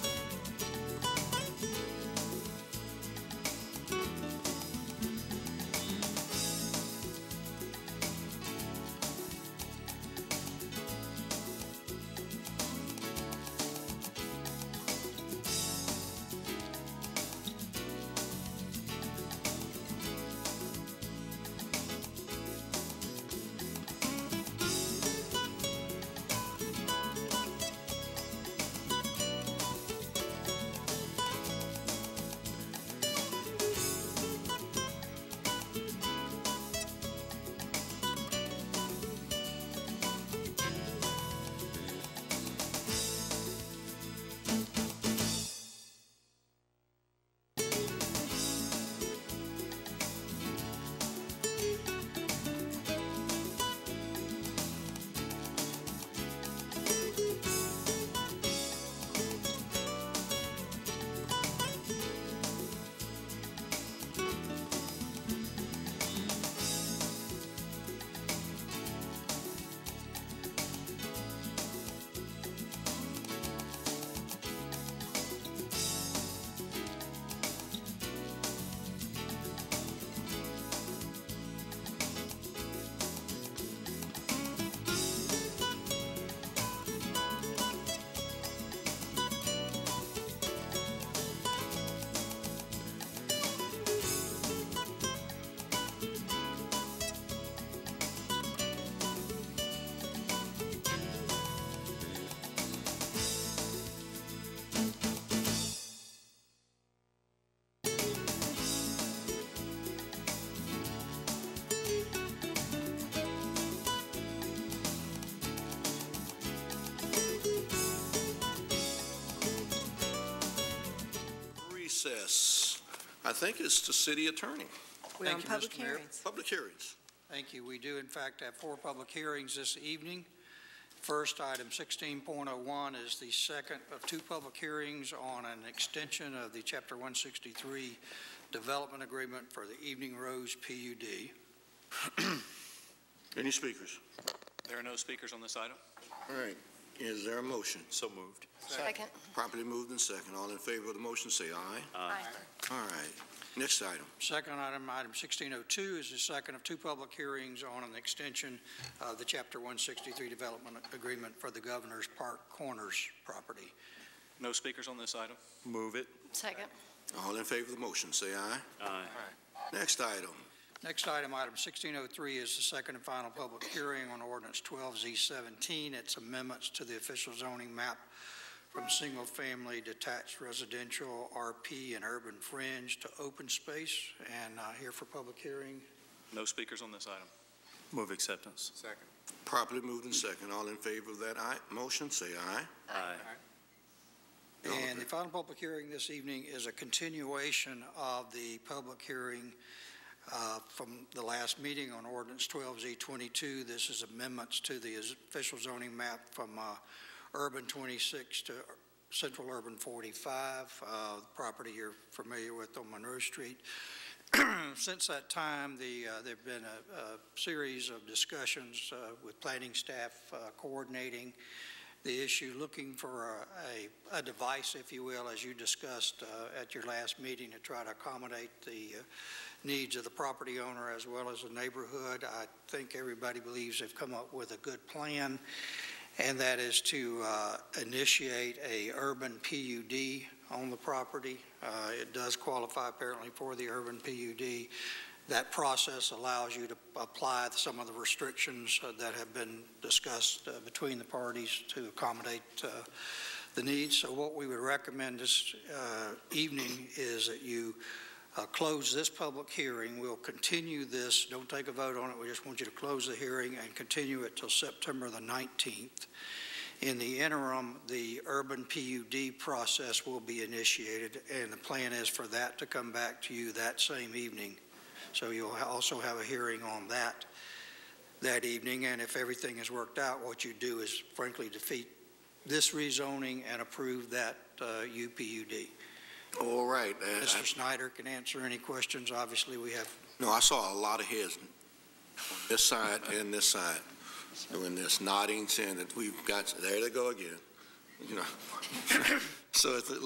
recess, I think it's the city attorney, We're on Thank you, public Mr. Mayor. hearings. public hearings. Thank you. We do, in fact, have four public hearings this evening. First, item 16.01 is the second of two public hearings on an extension of the Chapter 163 Development Agreement for the Evening Rose PUD. Any speakers? There are no speakers on this item. All right, is there a motion? So moved. Second. Properly moved and second. All in favor of the motion, say aye. Uh, Aye. All right, next item. Second item, item 1602, is the second of two public hearings on an extension of the Chapter 163 Development Agreement for the Governor's Park Corners property. No speakers on this item. Move it. Second. All in favor of the motion, say aye. Aye. Next item. Next item, item 1603, is the second and final public hearing on ordinance 12Z17. It's amendments to the official zoning map from single-family detached residential RP and urban fringe to open space. And uh, here for public hearing, No speakers on this item. Move acceptance. Properly moved and second. All in favor of that aye, motion, say aye. Aye. And the final public hearing this evening is a continuation of the public hearing uh, from the last meeting on ordinance 12Z22. This is amendments to the official zoning map from uh, urban 26 to central urban 45, uh, the property you're familiar with on Monroe Street. Since that time, the, uh, there've been a, a series of discussions uh, with planning staff uh, coordinating the issue, looking for a, a- a device, if you will, as you discussed uh, at your last meeting, to try to accommodate the uh, needs of the property owner as well as the neighborhood. I think everybody believes they've come up with a good plan, and that is to uh, initiate a urban PUD on the property. Uh, It does qualify apparently for the urban PUD. That process allows you to apply some of the restrictions uh, that have been discussed uh, between the parties to accommodate uh, the needs. So what we would recommend this uh, evening is that you uh, close this public hearing. We'll continue this, don't take a vote on it, we just want you to close the hearing and continue it till September the 19th. In the interim, the urban PUD process will be initiated, and the plan is for that to come back to you that same evening. So you'll ha- also have a hearing on that that evening, and if everything is worked out, what you do is frankly defeat this rezoning and approve that uh, UPUD. All right, uh, I- Mr. Snyder can answer any questions. Obviously, we have, no, I saw a lot of heads on this side and this side doing this, nodding, saying that we've got, there they go again, you know. So it's